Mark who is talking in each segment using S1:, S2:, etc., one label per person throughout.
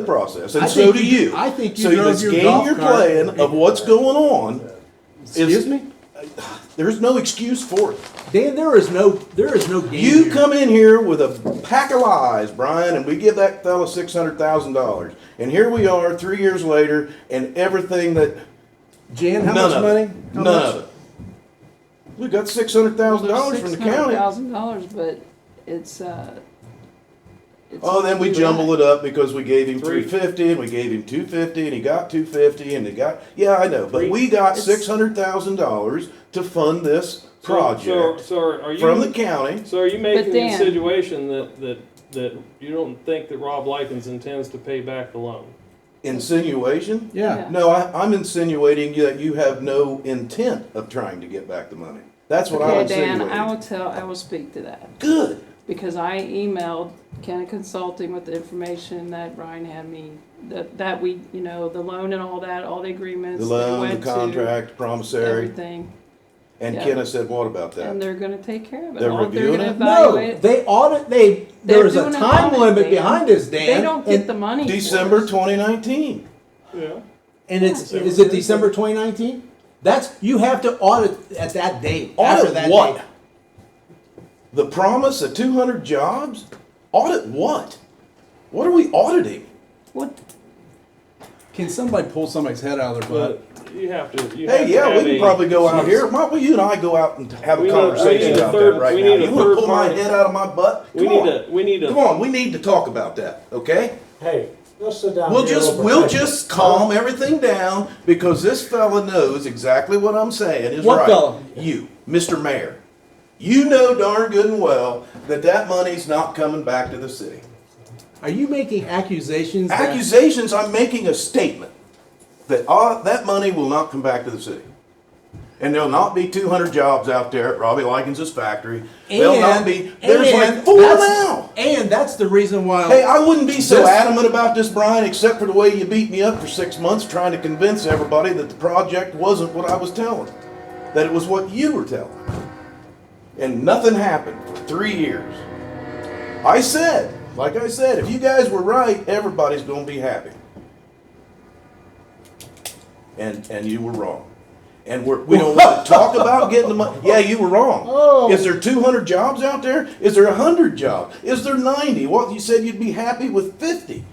S1: the process, and
S2: I
S1: so
S2: think
S1: do
S2: you-
S1: you.
S2: I think you
S1: So
S2: drove
S1: this
S2: your
S1: game
S2: golf
S1: you're
S2: cart-
S1: playing of what's going on,
S2: Excuse me?
S1: there's no excuse for it.
S2: Dan, there is no, there is no game
S1: You
S2: here.
S1: come in here with a pack of lies, Brian, and we give that fella six hundred thousand dollars. And here we are, three years later, and everything that
S2: Jan, how
S1: none
S2: much
S1: of
S2: money?
S1: it,
S2: How
S1: none
S2: much?
S1: of it. We got six hundred thousand dollars from the county.
S3: Thousand dollars, but it's, uh. it's
S1: Oh, then we
S3: only
S1: jumble
S3: right.
S1: it up because we gave him
S4: Three.
S1: three fifty, and we gave him two fifty, and he got two fifty, and he got, yeah, I know, but we got
S3: It's-
S1: six hundred thousand dollars to fund this
S4: So- So,
S1: project
S4: so are- are you?
S1: from the county.
S4: So are you making the
S3: Dan-
S4: insinuation that, that, that you don't think that Rob Likens intends to pay back the loan?
S1: Insinuation?
S2: Yeah.
S1: No, I, I'm insinuating that you have no intent of trying to get back the money. That's what I'm
S3: Okay, Dan, I
S1: insinuating.
S3: will tell, I will speak to that,
S1: Good.
S3: because I emailed Kenna Consulting with the information that Ryan had me, that, that we, you know, the loan and all that, all the agreements.
S1: The
S3: that
S1: loan,
S3: went
S1: the
S3: to,
S1: contract, promissory,
S3: Everything,
S1: and
S3: yeah.
S1: Kenna said, what about
S3: and
S1: that?
S3: they're gonna take care of it.
S1: They're
S3: All-
S1: reviewing
S3: gonna
S1: it?
S2: No,
S3: evaluate-
S2: they audit, they,
S3: They're
S2: there is a
S3: doing an
S2: time
S3: audit,
S2: limit
S3: Dan.
S2: behind this, Dan.
S3: They don't get
S2: and-
S3: the money. for it.
S1: December twenty nineteen.
S4: Yeah.
S2: And it's, is it December twenty nineteen? That's, you have to audit at that date, after that
S1: Audit what?
S2: date.
S1: The promise of two hundred jobs? Audit what? What are we auditing?
S3: What,
S5: Can somebody pull somebody's head out of their
S4: But
S5: butt?
S4: you have to, you have
S1: Hey,
S4: to
S1: yeah, we
S4: have
S1: can
S4: a-
S1: probably go out here. Why don't you and I go out and have
S4: We
S1: a
S4: need- we
S1: conversation
S4: need a
S1: about
S4: third-
S1: that right
S4: we
S1: now?
S4: need a
S1: You wanna
S4: third
S1: pull my
S4: party.
S1: head out of my butt?
S4: We
S1: Come
S4: need
S1: on.
S4: to, we need to.
S1: Come on, we need to talk about that, okay?
S6: Hey, let's sit down.
S1: We'll
S6: here a
S1: just,
S6: little
S1: we'll
S6: bit.
S1: just calm everything down because this fella knows exactly what I'm saying is right.
S2: What fella?
S1: You, Mr. Mayor. You know darn good and well that that money's not coming back to the city.
S2: Are you making accusations? that-
S1: Accusations, I'm making a statement that uh, that money will not come back to the city. And there'll not be 200 jobs out there at Robbie Likens' factory. there'll not be, there's like
S2: and
S1: four
S2: that's-
S1: now.
S2: And that's the reason why.
S1: Hey, I wouldn't be so
S2: This-
S1: adamant about this, Brian, except for the way you beat me up for six months trying to convince everybody that the project wasn't what I was telling, that it was what you were telling. And nothing happened for three years. I said, like I said, if you guys were right, everybody's going to be happy. And and you were wrong. And we're, we don't want to talk about getting the money. Yeah, you were wrong.
S2: Oh.
S1: Is there 200 jobs out there? Is there 100 jobs? Is there 90? What you said you'd be happy with 50.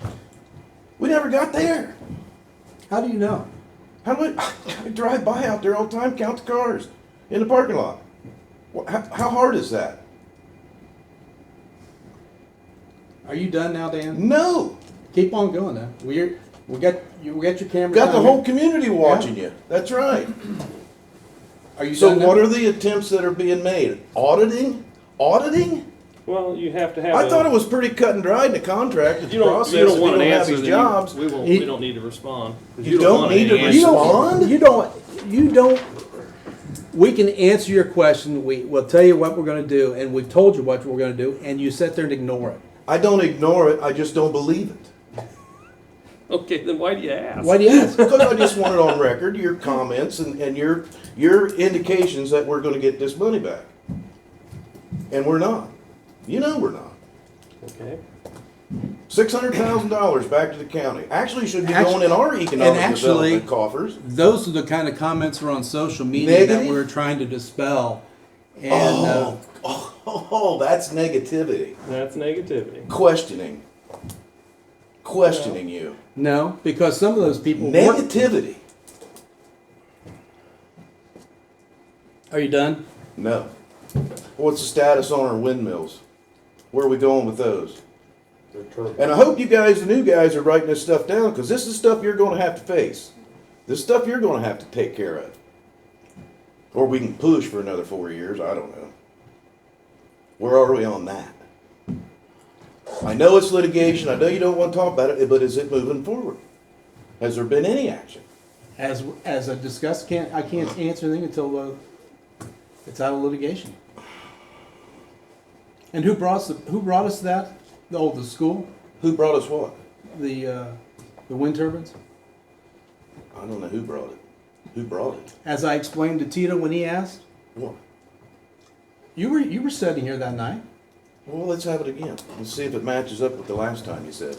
S1: We never got there.
S2: how do you know?
S1: How do I, I drive by out there all the time, count the cars in the parking lot? Wha- How, how hard is that?
S2: Are you done now, Dan?
S1: No.
S2: Keep on going now. We're we got you. We got your camera.
S1: Got the
S2: down
S1: whole
S2: here.
S1: community watching you. That's right.
S2: Are you
S1: So
S2: done now?
S1: what are the attempts that are being made? Auditing? Auditing?
S4: Well, you have to have.
S1: I
S4: a-
S1: thought it was pretty cut and dried in the contract, and
S4: You
S1: the
S4: don't,
S1: process.
S4: you don't
S1: if
S4: want an
S1: don't have
S4: answer.
S1: these
S4: then you-
S1: jobs.
S4: We won't,
S2: He-
S4: we don't need to respond. 'cause
S1: You don't
S4: want
S1: need
S4: any
S1: to
S4: answer.
S2: You
S1: Respond?
S2: don't. You don't. You don't. We can answer your question. We will tell you what we're going to do, and we've told you what we're going to do, and you sit there and ignore it.
S1: I don't ignore it. I just don't believe it.
S4: Okay, then why do you ask?
S2: Why do you ask?
S1: Because I just want it on record, your comments and, and your, your indications that we're gonna get this money back. And we're not. You know we're not.
S4: Okay.
S1: Six hundred thousand dollars back to the county. Actually should be
S2: Actu-
S1: going in our
S2: and
S1: economic
S2: actually-
S1: development coffers.
S2: Those are the kind of comments that are on social media that
S1: Negative?
S2: we were trying to dispel. And uh,
S1: Oh, oh, oh, that's negativity.
S4: That's negativity.
S1: Questioning. Questioning you.
S2: no, because some of those people. weren't-
S1: Negativity.
S2: Are you done?
S1: No. What's the status on our windmills? Where are we going with those?
S6: They're terrible.
S1: And I hope you guys, the new guys, are writing this stuff down because this is stuff you're going to have to face. This stuff you're going to have to take care of. Or we can push for another four years. I don't know. Where are we on that? I know it's litigation. I know you don't want to talk about it, but is it moving forward? Has there been any action?
S2: As as I discussed, can't I can't answer anything until uh, it's out of litigation. And who brought us the, who brought us that? Oh, the school,
S1: Who brought us what?
S2: the uh, the wind turbines.
S1: I don't know who brought it. Who brought it?
S2: As I explained to Tito when he asked,
S1: What?
S2: you were you were sitting here that night.
S1: Well, let's have it again. Let's see if it matches up with the last time you said.